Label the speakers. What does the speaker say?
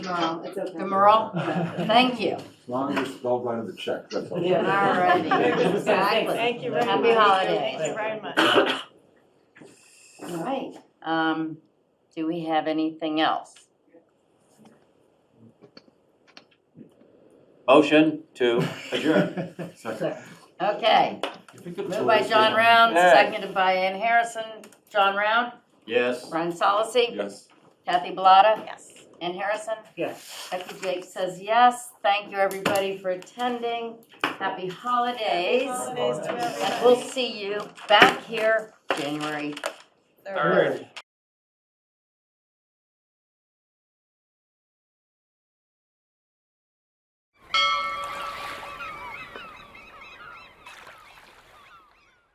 Speaker 1: wrong, it's okay.
Speaker 2: Um, The Merle? Thank you.
Speaker 3: As long as you spelled right in the check, that's all.
Speaker 2: All righty. Exactly.
Speaker 4: Thank you very much.
Speaker 2: Happy holidays.
Speaker 4: Thank you very much.
Speaker 2: All right, um, do we have anything else?
Speaker 5: Motion to adjourn.
Speaker 2: Okay,
Speaker 3: If you could
Speaker 2: moved
Speaker 3: pull
Speaker 2: by
Speaker 3: this
Speaker 2: John
Speaker 3: down.
Speaker 2: Round,
Speaker 5: Hey.
Speaker 2: seconded by Ann Harrison. John Round,
Speaker 5: Yes.
Speaker 2: Ron Solacey,
Speaker 3: Yes.
Speaker 2: Kathy Bellata,
Speaker 4: Yes.
Speaker 2: Ann Harrison.
Speaker 6: Yes.
Speaker 2: Becky Jake says yes. Thank you, everybody, for attending. Happy holidays.
Speaker 4: Holidays to
Speaker 2: And we'll
Speaker 4: everybody.
Speaker 2: see you back here January
Speaker 4: Third.